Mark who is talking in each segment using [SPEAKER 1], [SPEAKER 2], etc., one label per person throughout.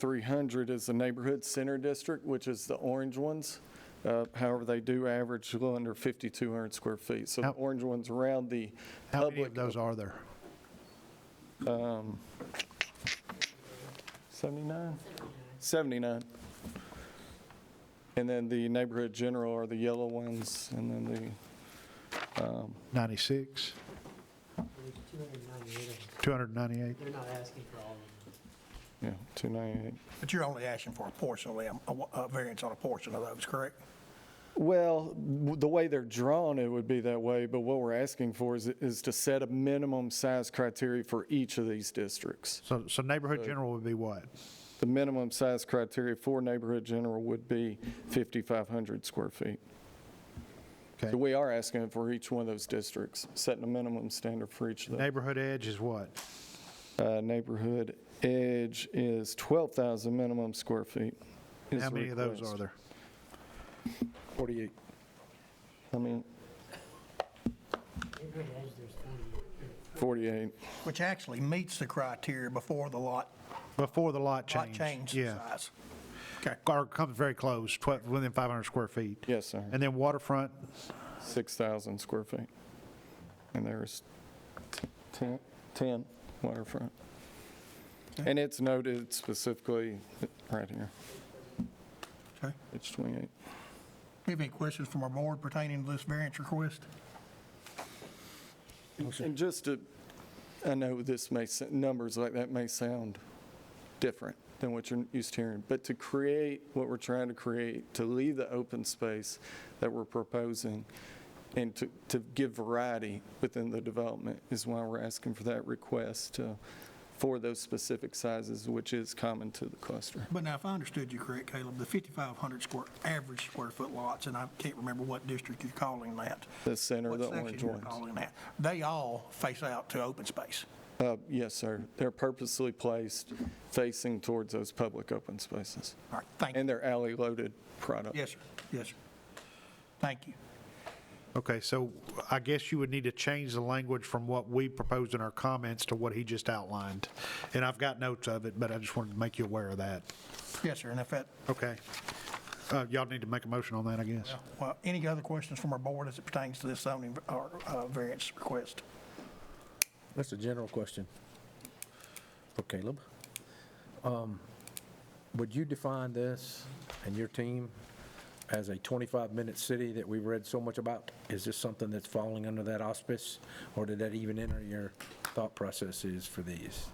[SPEAKER 1] 3,300 is the neighborhood center district, which is the orange ones. Uh, However, they do average a little under 5,200 square feet. So the
[SPEAKER 2] How-
[SPEAKER 1] orange ones around the
[SPEAKER 2] How many of
[SPEAKER 1] public,
[SPEAKER 2] those are there?
[SPEAKER 1] 79? 79. And then the neighborhood general are the yellow ones, and then the
[SPEAKER 2] 96,
[SPEAKER 3] There's 298 of them.
[SPEAKER 2] 298?
[SPEAKER 3] They're not asking for all of them.
[SPEAKER 1] Yeah, 298.
[SPEAKER 4] But you're only asking for a portion of them, a, a variance on a portion of those, correct?
[SPEAKER 1] Well, w- the way they're drawn, it would be that way, but what we're asking for is, is to set a minimum size criteria for each of these districts.
[SPEAKER 2] So, so neighborhood general would be what?
[SPEAKER 1] The minimum size criteria for neighborhood general would be 5,500 square feet.
[SPEAKER 2] Okay.
[SPEAKER 1] So we are asking for each one of those districts, setting a minimum standard for each of them.
[SPEAKER 2] Neighborhood edge is what?
[SPEAKER 1] Uh, Neighborhood edge is 12,000 minimum square feet. is
[SPEAKER 2] How
[SPEAKER 1] the
[SPEAKER 2] many of those
[SPEAKER 1] request.
[SPEAKER 2] are there?
[SPEAKER 5] 48.
[SPEAKER 1] I mean,
[SPEAKER 3] Neighborhood edge, there's 48.
[SPEAKER 1] 48.
[SPEAKER 4] Which actually meets the criteria before the lot,
[SPEAKER 2] Before the lot
[SPEAKER 4] lot
[SPEAKER 2] change?
[SPEAKER 4] change
[SPEAKER 2] Yeah.
[SPEAKER 4] size. Okay.
[SPEAKER 2] Or comes very close, 12, within 500 square feet.
[SPEAKER 1] Yes, sir.
[SPEAKER 2] And then waterfront,
[SPEAKER 1] 6,000 square feet. And there's 10 10 waterfront. And it's noted specifically right here,
[SPEAKER 4] Okay.
[SPEAKER 1] page 28.
[SPEAKER 4] Do you have any questions from our board pertaining to this variance request?
[SPEAKER 1] And just to, I know this may, s- numbers like that may sound different than what you're used to hearing, but to create what we're trying to create, to leave the open space that we're proposing, and to, to give variety within the development is why we're asking for that request to, for those specific sizes, which is common to the cluster.
[SPEAKER 4] But now, if I understood you correct, Caleb, the 5,500 square, average square foot lots, and I can't remember what district you're calling that.
[SPEAKER 1] The center,
[SPEAKER 4] what
[SPEAKER 1] the
[SPEAKER 4] section
[SPEAKER 1] orange
[SPEAKER 4] you're
[SPEAKER 1] ones.
[SPEAKER 4] calling that, They all face out to open space.
[SPEAKER 1] Uh, yes, sir. They're purposely placed facing towards those public open spaces.
[SPEAKER 4] All right, thank you.
[SPEAKER 1] And they're alley-loaded product.
[SPEAKER 4] Yes, sir. Yes, sir. Thank you.
[SPEAKER 2] okay, so I guess you would need to change the language from what we proposed in our comments to what he just outlined. And I've got notes of it, but I just wanted to make you aware of that.
[SPEAKER 4] Yes, sir. And if that,
[SPEAKER 2] Okay. Uh, Y'all need to make a motion on that, I guess.
[SPEAKER 4] well, any other questions from our board as it pertains to this zoning or uh, variance request?
[SPEAKER 5] That's a general question for Caleb. Um, Would you define this and your team as a 25-minute city that we've read so much about? Is this something that's falling under that auspice, or did that even enter your thought processes for these?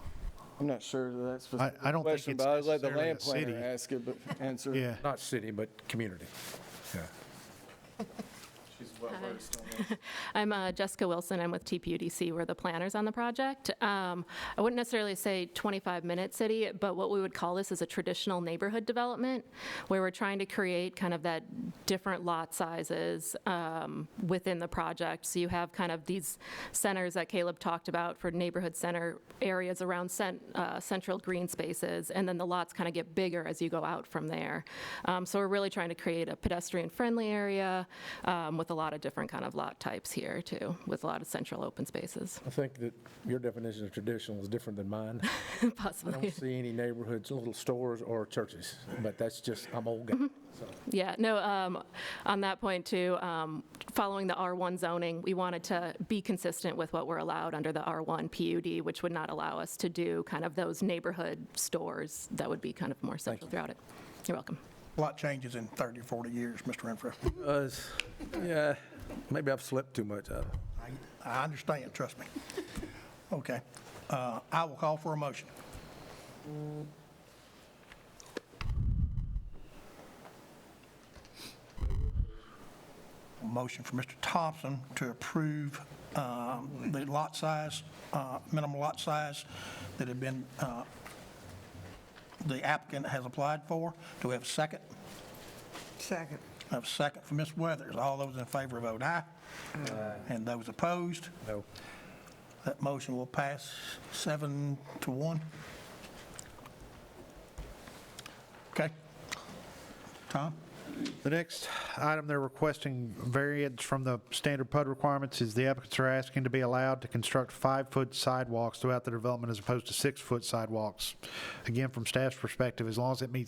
[SPEAKER 1] I'm not sure that that's
[SPEAKER 2] I- I don't think
[SPEAKER 1] question,
[SPEAKER 2] it's
[SPEAKER 1] but I let the
[SPEAKER 2] necessarily
[SPEAKER 1] land
[SPEAKER 2] a
[SPEAKER 1] planner
[SPEAKER 2] city.
[SPEAKER 1] ask it, but answer.
[SPEAKER 2] Yeah.
[SPEAKER 5] Not city, but community. Yeah.
[SPEAKER 1] She's well versed on that.
[SPEAKER 6] I'm uh, Jessica Wilson. I'm with TPUDC. We're the planners on the project. Um, I wouldn't necessarily say 25-minute city, but what we would call this is a traditional neighborhood development, where we're trying to create kind of that different lot sizes um, within the project. So you have kind of these centers that Caleb talked about for neighborhood center areas around cen- uh, central green spaces, and then the lots kind of get bigger as you go out from there. Um, So we're really trying to create a pedestrian-friendly area um, with a lot of different kind of lot types here, too, with a lot of central open spaces,
[SPEAKER 5] I think that your definition of traditional is different than mine. I
[SPEAKER 6] possibly.
[SPEAKER 5] don't see any neighborhoods, little stores or churches, but that's just, I'm old guy. so.
[SPEAKER 6] Yeah, no, um, on that point too, um, following the R1 zoning, we wanted to be consistent with what we're allowed under the R1 PUD, which would not allow us to do kind of those neighborhood stores that would be kind of more central throughout it. You're welcome.
[SPEAKER 4] Lot changes in 30, 40 years, Mr. Renfro.
[SPEAKER 7] Us, yeah, maybe I've slept too much. I-
[SPEAKER 4] I- I understand, trust me. Okay. Uh, I will call for a motion. A Motion for Mr. Thompson to approve um, the lot size, uh, minimum lot size that had been, uh, the applicant has applied for. Do we have a second?
[SPEAKER 8] Second.
[SPEAKER 4] I have a second for Ms. Weathers. All those in favor vote aye. And those opposed?
[SPEAKER 5] No.
[SPEAKER 4] That motion will pass seven to one. Okay. Tom?
[SPEAKER 2] The next item they're requesting variance from the standard PUD requirements is the applicants are asking to be allowed to construct five-foot sidewalks throughout the development as opposed to six-foot sidewalks. Again, from staff's perspective, as long as it meets